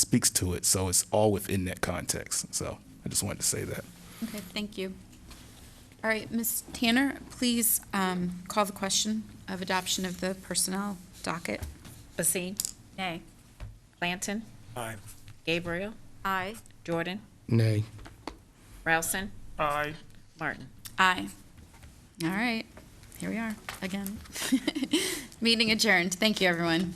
speaks to it. So it's all within that context. So I just wanted to say that. Okay, thank you. All right, Ms. Tanner, please um, call the question of adoption of the personnel docket. Basine? Nay. Blanton? Aye. Gabriel? Aye. Jordan? Nay. Rousen? Aye. Martin? Aye. All right, here we are again. Meeting adjourned. Thank you, everyone.